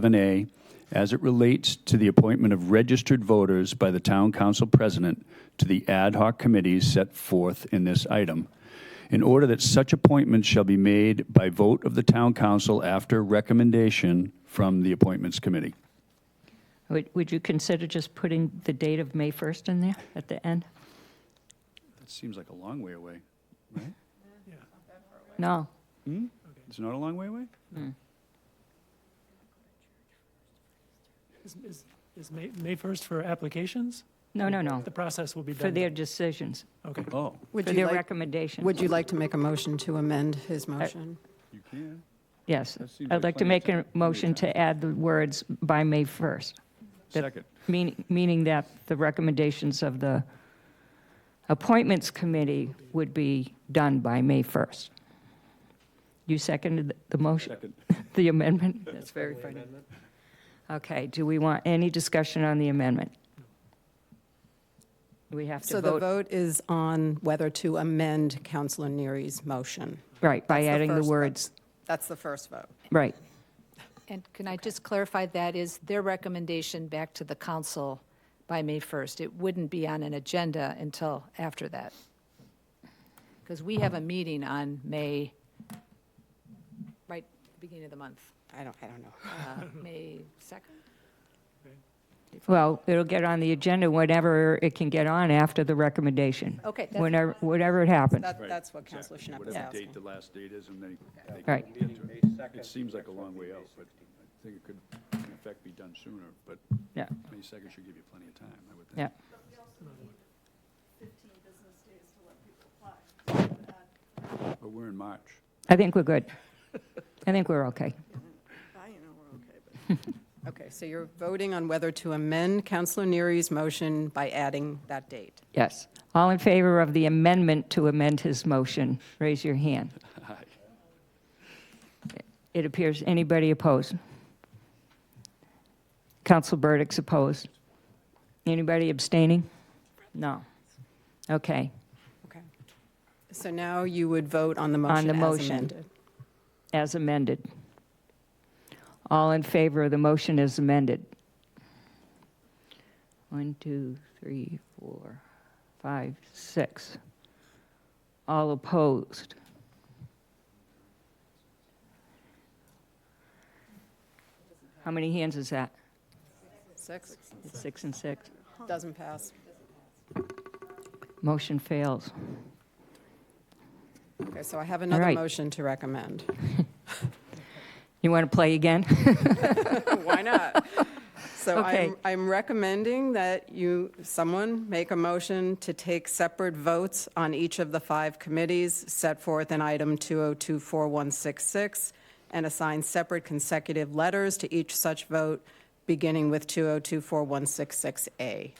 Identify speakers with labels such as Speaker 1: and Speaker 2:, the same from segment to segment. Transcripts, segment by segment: Speaker 1: 11A as it relates to the appointment of registered voters by the town council president to the ad hoc committees set forth in this item. In order that such appointments shall be made by vote of the town council after recommendation from the appointments committee.
Speaker 2: Would, would you consider just putting the date of May 1st in there at the end?
Speaker 1: That seems like a long way away.
Speaker 2: No,
Speaker 1: It's not a long way away?
Speaker 3: Is, is, is May, May 1st for applications?
Speaker 2: no, no, no,
Speaker 3: The process will be
Speaker 2: for
Speaker 3: done.
Speaker 2: their decisions,
Speaker 3: Okay.
Speaker 1: Oh,
Speaker 2: for
Speaker 4: Would you
Speaker 2: their
Speaker 4: like,
Speaker 2: recommendations.
Speaker 4: would you like to make a motion to amend his motion?
Speaker 1: you can.
Speaker 2: Yes,
Speaker 1: That seems
Speaker 2: I'd like
Speaker 1: plenty
Speaker 2: to
Speaker 1: of
Speaker 2: make a
Speaker 1: time.
Speaker 2: motion to add the words by May 1st, That-
Speaker 1: Second.
Speaker 2: meaning, meaning that the recommendations of the appointments committee would be done by May 1st. You seconded the motion?
Speaker 1: Second.
Speaker 2: The amendment? That's very funny. Okay, do we want any discussion on the amendment? We have
Speaker 4: So
Speaker 2: to
Speaker 4: the
Speaker 2: vote,
Speaker 4: vote is on whether to amend Counselor Neary's motion.
Speaker 2: right, by
Speaker 4: That's the
Speaker 2: adding the
Speaker 4: first vote.
Speaker 2: words,
Speaker 4: That's the first vote.
Speaker 2: right,
Speaker 5: And can I just clarify, that is their recommendation back to the council by May 1st? It wouldn't be on an agenda until after that? Because we have a meeting on May, right, beginning of the month,
Speaker 4: I don't, I don't know.
Speaker 5: uh, May 2nd?
Speaker 2: well, it'll get on the agenda whenever it can get on after the recommendation.
Speaker 5: Okay, that's-
Speaker 2: Whenever, whenever it happens,
Speaker 4: That, that's what Counselor Schnapp is
Speaker 1: Whatever date
Speaker 4: asking.
Speaker 1: the last date is, and they. they can
Speaker 2: Right.
Speaker 1: get to it. It seems like a long way out, but I think it could, in effect, be done sooner, but
Speaker 2: yeah,
Speaker 1: May 2nd should give you plenty of time, I would think.
Speaker 2: yeah.
Speaker 1: But we're in March.
Speaker 2: I think we're good. I think we're okay.
Speaker 4: Okay, so you're voting on whether to amend Counselor Neary's motion by adding that date.
Speaker 2: Yes. All in favor of the amendment to amend his motion, raise your hand. It appears anybody opposed? Council Burdick's opposed. Anybody abstaining? No. Okay,
Speaker 4: Okay. So now you would vote on the
Speaker 2: On
Speaker 4: motion
Speaker 2: the
Speaker 4: as
Speaker 2: motion.
Speaker 4: amended.
Speaker 2: as amended. All in favor of the motion as amended? One, two, three, four, five, six. All opposed? How many hands is that?
Speaker 4: Six,
Speaker 2: It's Six and six.
Speaker 4: doesn't pass.
Speaker 2: Motion fails.
Speaker 4: Okay, so I have another
Speaker 2: right.
Speaker 4: motion to recommend.
Speaker 2: You want to play again?
Speaker 4: Why not? So
Speaker 2: Okay.
Speaker 4: I'm, I'm recommending that you, someone make a motion to take separate votes on each of the five committees set forth in item 2024166 and assign separate consecutive letters to each such vote, beginning with 2024166A.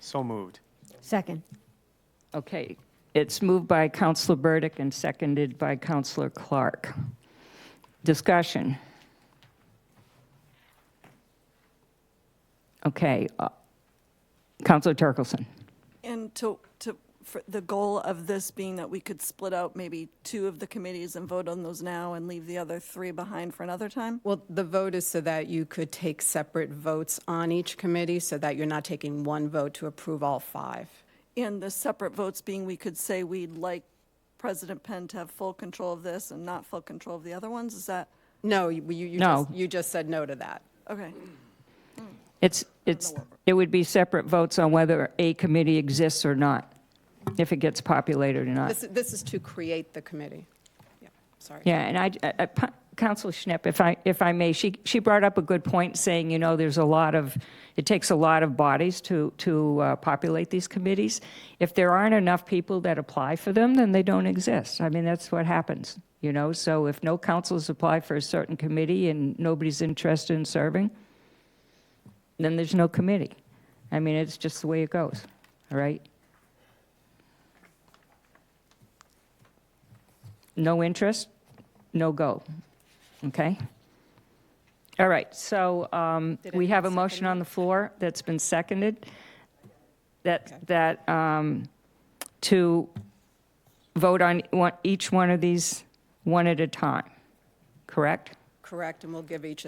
Speaker 6: So moved.
Speaker 7: Second.
Speaker 2: Okay, it's moved by Counselor Burdick and seconded by Counselor Clark. Discussion. Okay, uh, Counselor Turkelson.
Speaker 8: And to, to, for the goal of this being that we could split out maybe two of the committees and vote on those now and leave the other three behind for another time?
Speaker 4: Well, the vote is so that you could take separate votes on each committee, so that you're not taking one vote to approve all five.
Speaker 8: And the separate votes being, we could say we'd like President Penn to have full control of this and not full control of the other ones, is that,
Speaker 4: No, you, you you
Speaker 2: No.
Speaker 4: just, you just said no to that.
Speaker 8: okay.
Speaker 2: It's, it's, it would be separate votes on whether a committee exists or not, if it gets populated or not.
Speaker 4: This, this is to create the committee. Yeah, sorry.
Speaker 2: Yeah, and I, I- I- Pa- Counselor Schnapp, if I, if I may, she, she brought up a good point, saying, you know, there's a lot of, it takes a lot of bodies to, to uh, populate these committees. If there aren't enough people that apply for them, then they don't exist. I mean, that's what happens, you know? So if no councils apply for a certain committee and nobody's interested in serving, then there's no committee. I mean, it's just the way it goes, all right? No interest, no go. Okay? All right, so um, we have a motion on the floor that's been seconded that, that, um, to vote on one- each one of these one at a time, correct?
Speaker 4: Correct, and we'll give each